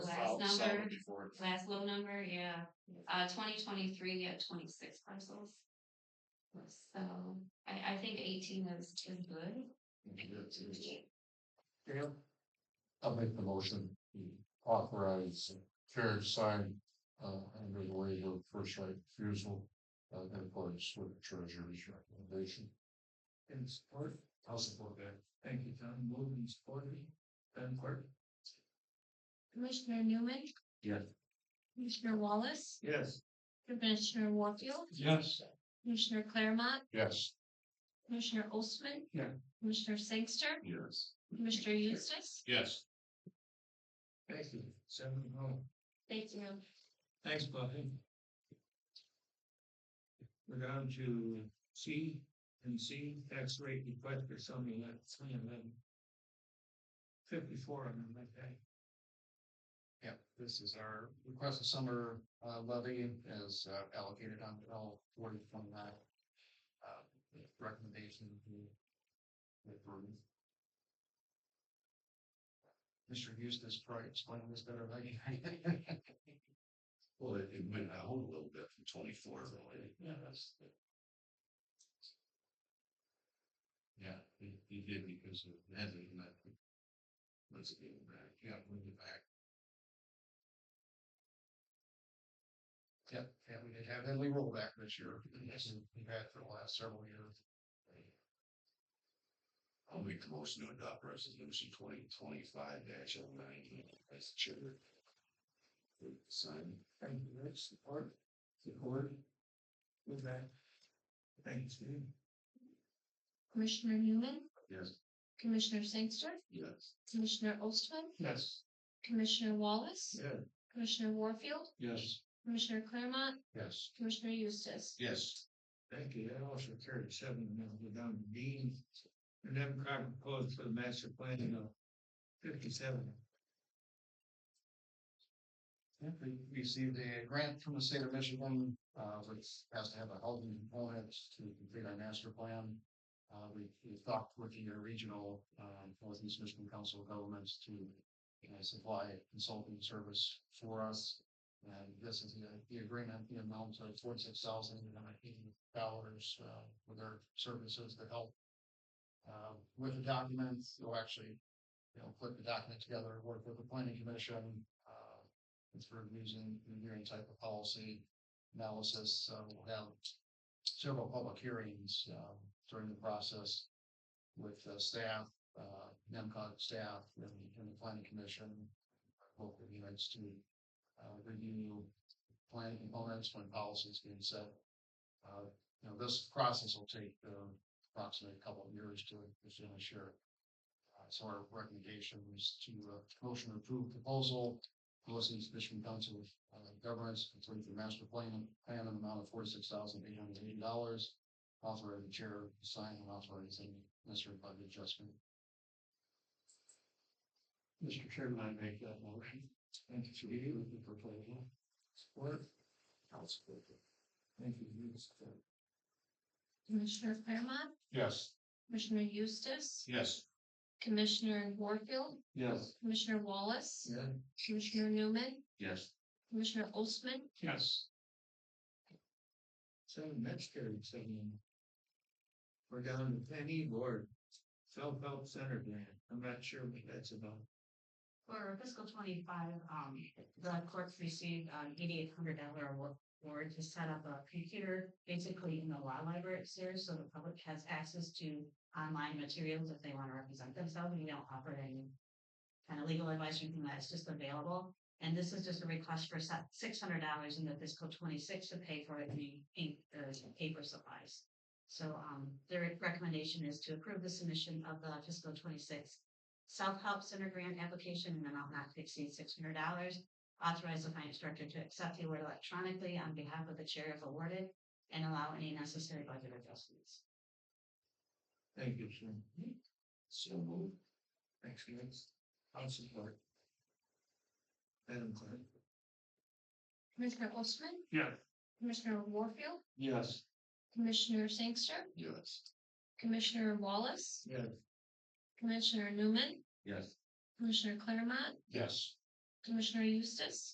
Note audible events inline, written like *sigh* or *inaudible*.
number, Seventy-four. last low number, yeah, uh, twenty twenty-three, at twenty-six parcels. So, I, I think eighteen is, is good. I'll make the motion, to authorize carriage sign, uh, under the waiver of first right refusal, uh, in accordance with the treasurer's recommendation. And support? I'll support that. Thank you, Tom. Moving and supported. Ben Clark? Commissioner Newman, Yes. Commissioner Wallace, Yes. Commissioner Warfield, Yes. Commissioner Claremont, Yes. Commissioner Ostman. Yeah. Commissioner Sangster, Yes. Commissioner Eustace. Yes. Thank you. Seven oh. Thank you. Thanks, Buffy. We're down to C and C tax rate request for something at three and then fifty-four on them that day. Yep, this is our request of summer uh, levy as uh, allocated on all forty from that uh, recommendation. to- with Ruth. Mr. Eustace probably explained this better than I *laughs* can. Well, it, it went down a little bit from twenty-four, really. Yeah, that's. Yeah, it, it did because of that, and that. Let's get it back, yeah, bring it back. Yep, yeah, we did have Headley roll back this year, yes, we've had for the last several years. I'll make the motion to adopt resolution twenty twenty-five dash oh nine, as chair. Sign. Thank you, Rich, support, support. Move back. Thanks, Steve. Commissioner Newman, Yes. Commissioner Sangster, Yes. Commissioner Ostman, Yes. Commissioner Wallace, Yeah. Commissioner Warfield, Yes. Commissioner Claremont, Yes. Commissioner Eustace. Yes. Thank you. That also carried seven, and then we're down to Dean. And then Crocker proposed for the master plan of fifty-seven. we received a grant from the state of Michigan, uh, which has to have a housing component to complete our master plan. Uh, we, we talked with the regional, um, Northeast Michigan Council of Governments to, you know, supply consulting service for us. And Uh, this is the, the agreement, the amount of forty-six thousand and eighty dollars, uh, for their services to help. Uh, with the documents, you'll actually, you know, put the document together, work with the planning commission, uh, it's for using, reviewing type of policy analysis, uh, we'll have several public hearings, uh, during the process with the staff, uh, NIMCOG staff and, and the planning commission, both of you, it's to uh, review plan components when policies being set. Uh, you know, this process will take, uh, approximately a couple of years to, to ensure. Uh, so our recommendation is to, uh, motion to approve proposal, Northeast Michigan Council of uh, Governments, complete the master plan, plan in the amount of forty-six thousand eight hundred eighty dollars. Authorize the chair to sign and authorize any necessary budget adjustment. Mr. Chairman, I make that motion. Thank you, Judy, with the proposal. Support. I'll support it. Thank you, you support. Commissioner Claremont, Yes, Commissioner Eustace, yes. Commissioner Warfield, Yes. Commissioner Wallace, Yeah. Commissioner Newman, Yes. Commissioner Ostman, Yes. Seven, that's carried seven. We're down to Penny Ward, self-help center grant. I'm not sure what that's about. For fiscal twenty-five, um, the clerks received an eighty-eight hundred dollar award to set up a computer, basically in the law library upstairs, so the public has access to online materials if they want to represent themselves, we don't offer any kind of legal advice or anything that's just available, and this is just a request for six hundred dollars in the fiscal twenty-six to pay for any ink, uh, paper supplies. So, um, their recommendation is to approve the submission of the fiscal twenty-six self-help center grant application in an amount not to exceed six hundred dollars. Authorize the finance director to accept the award electronically on behalf of the chair if awarded and allow any necessary budget adjustments. Thank you, sir. So moved. Thanks, guys. I'll support. Madam Clerk. Commissioner Ostman, Yes. Commissioner Warfield, Yes. Commissioner Sangster, Yes. Commissioner Wallace, Yes. Commissioner Newman, Yes. Commissioner Claremont, Yes. Commissioner Eustace,